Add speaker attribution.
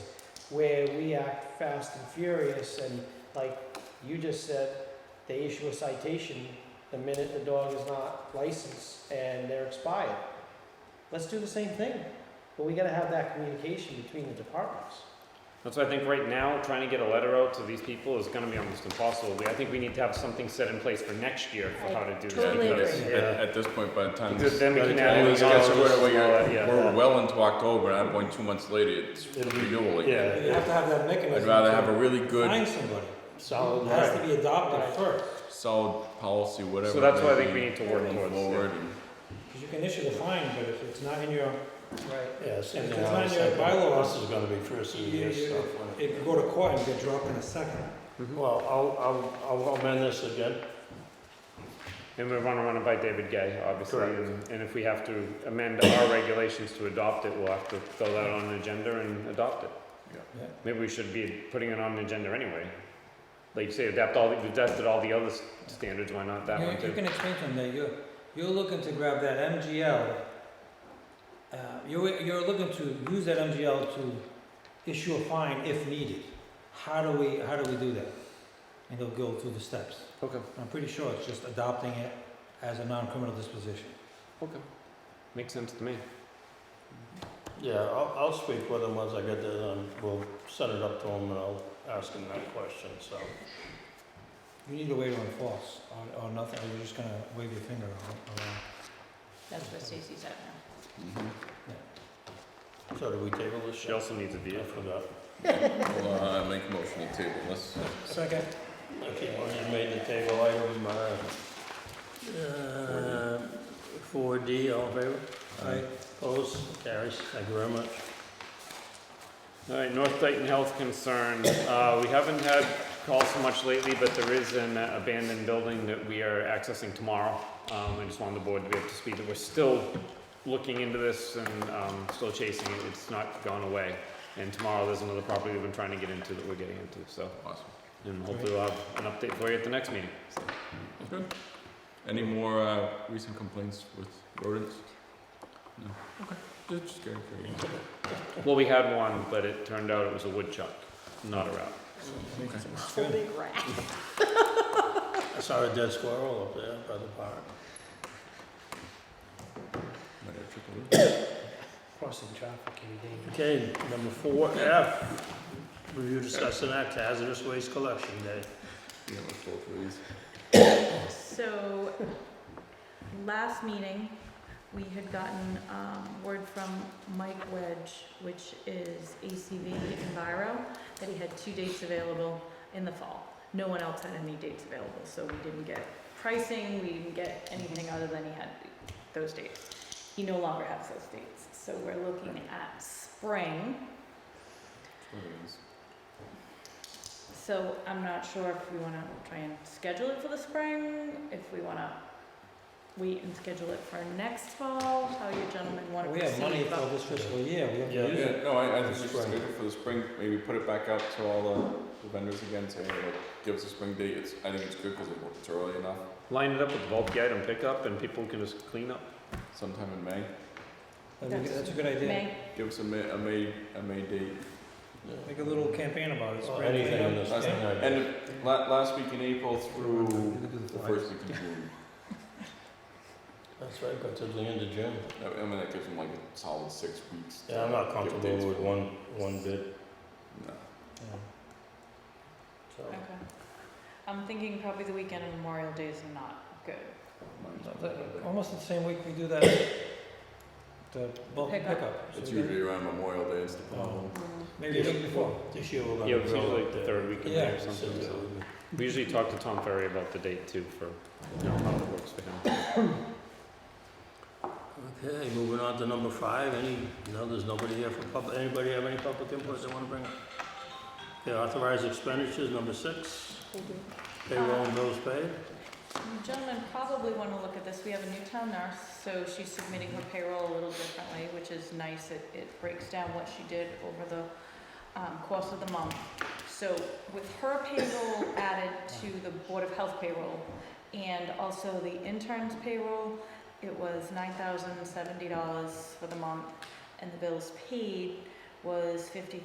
Speaker 1: where we act fast and furious and like you just said, they issue a citation the minute the dog is not licensed and they're expired. Let's do the same thing, but we gotta have that communication between the departments.
Speaker 2: That's why I think right now, trying to get a letter out to these people is gonna be almost impossible. We- I think we need to have something set in place for next year for how to do that.
Speaker 3: Totally
Speaker 2: because-
Speaker 3: agree.
Speaker 4: At, at this point, by the time
Speaker 2: Because
Speaker 4: this,
Speaker 2: then we
Speaker 4: by the
Speaker 2: can
Speaker 4: time
Speaker 2: add
Speaker 4: this
Speaker 2: it
Speaker 4: gets
Speaker 2: all
Speaker 4: squared
Speaker 2: and
Speaker 4: away,
Speaker 2: all that, yeah.
Speaker 4: we're well into October, and I'm going two months later, it's
Speaker 5: It'll be-
Speaker 4: renewal again.
Speaker 5: Yeah.
Speaker 3: You have to have that mechanism.
Speaker 4: I'd rather
Speaker 3: to
Speaker 4: have a really good,
Speaker 3: Find somebody.
Speaker 5: Solid.
Speaker 3: It has to be adopted first,
Speaker 4: solid policy, whatever.
Speaker 2: So that's why I
Speaker 4: that
Speaker 2: think we need to work
Speaker 4: move
Speaker 2: towards.
Speaker 4: Forward
Speaker 2: yeah.
Speaker 4: and
Speaker 3: because you can issue the fine, but if it's not in your,
Speaker 1: Right.
Speaker 5: Yes.
Speaker 3: If it's
Speaker 5: anyhow,
Speaker 3: not in your
Speaker 5: second-
Speaker 3: bylaws,
Speaker 5: This is gonna be first of the
Speaker 3: you-
Speaker 5: year
Speaker 3: you-
Speaker 5: stuff.
Speaker 3: it could go to court and get dropped in a second.
Speaker 5: Well, I'll, I'll, I'll amend this again.
Speaker 2: And we wanna run it by David Gay, obviously,
Speaker 5: Correct.
Speaker 2: and, and if we have to amend our regulations to adopt it, we'll have to throw that on an agenda and adopt it.
Speaker 4: Yeah.
Speaker 3: Yeah.
Speaker 2: Maybe we should be putting it on an agenda anyway. Like you say, adapt all, the- we've tested all the other s- standards, why not that
Speaker 3: You,
Speaker 2: one
Speaker 3: you
Speaker 2: too?
Speaker 3: can explain to them that you're, you're looking to grab that MGL, uh, you're, you're looking to use that MGL to issue a fine if needed. How do we, how do we do that? And they'll go through the steps.
Speaker 2: Okay,
Speaker 3: I'm pretty sure it's just adopting it as a non-criminal disposition.
Speaker 2: okay. Makes sense to me.
Speaker 5: Yeah, I'll, I'll speak with him once I get this, and we'll send it up to him, and I'll ask him that question, so.
Speaker 3: You need a way to enforce, or, or nothing, or you're just gonna wave your finger ar- around.
Speaker 6: That's what Stacy's at now.
Speaker 5: So do we table this?
Speaker 2: She also needs a
Speaker 5: I
Speaker 2: vehicle.
Speaker 5: forgot.
Speaker 4: I'll, uh, make a motion to table this.
Speaker 3: Second.
Speaker 5: Okay, well, you made the table item, uh, four D, all in favor?
Speaker 3: Aye.
Speaker 5: Opposed, carries, thank you very much.
Speaker 2: All right, North Dayton Health Concern, uh, we haven't had calls so much lately, but there is an abandoned building that we are accessing tomorrow. Um, I just wanted the board to be up to speed that we're still looking into this and, um, still chasing it, it's not gone away. And tomorrow, there's another property we've been trying to get into that we're getting into, so,
Speaker 4: Awesome.
Speaker 2: and hopefully we'll have an update for you at the next meeting.
Speaker 4: Good. Any more, uh, recent complaints with rodents? No? Okay. Just scared for you.
Speaker 2: Well, we had one, but it turned out it was a woodchuck, not a rat.
Speaker 6: Holy rat.
Speaker 5: I saw a dead squirrel up there by the park.
Speaker 4: Might have trickled in.
Speaker 1: Crossing traffic can be dangerous.
Speaker 5: Okay, number four F, review, discuss, and act hazardous waste collection day.
Speaker 4: Yeah, let's go for these.
Speaker 6: So, last meeting, we had gotten, um, word from Mike Wedge, which is ACV Enviro, that he had two dates available in the fall. No one else had any dates available, so we didn't get pricing, we didn't get anything other than he had those dates. He no longer has those dates, so we're looking at spring.
Speaker 4: There it is.
Speaker 6: So I'm not sure if we wanna try and schedule it for the spring, if we wanna wait and schedule it for next fall, how you gentlemen wanna
Speaker 3: We
Speaker 6: proceed.
Speaker 3: have money
Speaker 6: but-
Speaker 3: for this fiscal year, we have
Speaker 5: Yeah.
Speaker 3: to use it.
Speaker 4: Yeah, no, I, I think we should
Speaker 5: Spring.
Speaker 4: schedule it for the spring, maybe put it back out to all the- the vendors again, say, hey, like, give us a spring date, it's, I think it's good, cause it- it's early enough,
Speaker 2: Line it up with bulk item pickup and people can just clean up.
Speaker 4: sometime in May,
Speaker 3: That'd be good- That's a good idea.
Speaker 6: May,
Speaker 4: give us a May, a May, a May date.
Speaker 3: Make a little campaign about it.
Speaker 5: Or
Speaker 3: spring
Speaker 5: anything in
Speaker 3: cleanup.
Speaker 5: this
Speaker 4: Last-
Speaker 5: thing.
Speaker 4: And la- last week in April through
Speaker 3: You could do the
Speaker 4: the
Speaker 3: flyers.
Speaker 4: first week in June,
Speaker 5: That's right, but to the end of June.
Speaker 4: I I mean, that gives them like a solid six weeks.
Speaker 5: Yeah, I'm not
Speaker 4: to give dates
Speaker 5: comfortable with
Speaker 4: for-
Speaker 5: one, one bit,
Speaker 4: No,
Speaker 3: Yeah.
Speaker 5: so.
Speaker 6: okay. I'm thinking probably the weekend of Memorial Day is not good.
Speaker 4: mine's
Speaker 3: Not
Speaker 4: not
Speaker 3: that-
Speaker 4: that bad.
Speaker 3: Almost the same week we do that, the bulk
Speaker 6: Pickup.
Speaker 3: pickup. So
Speaker 4: It's
Speaker 3: we do-
Speaker 4: usually around Memorial Day, it's the
Speaker 5: Oh.
Speaker 4: problem.
Speaker 3: Maybe the week before.
Speaker 5: This year we're gonna.
Speaker 2: Yeah, it's
Speaker 5: grill
Speaker 2: usually
Speaker 5: up
Speaker 2: the
Speaker 5: there.
Speaker 2: third weekend
Speaker 3: Yeah,
Speaker 2: or something, so. We usually talk to Tom Ferry about the date too for, you know, how it works for him.
Speaker 5: Okay, moving on to number five, any, no, there's nobody here for public, anybody have any public input they wanna bring up? Okay, authorized expenditures, number six, payroll and bills paid.
Speaker 6: You Gentlemen probably wanna look at this, we have a new town nurse, so she's submitting her payroll a little differently, which is nice, it, it breaks down what she did over the um, course of the month. So with her payroll added to the Board of Health payroll and also the intern's payroll, it was nine thousand seventy dollars for the month, and the bills paid was fifty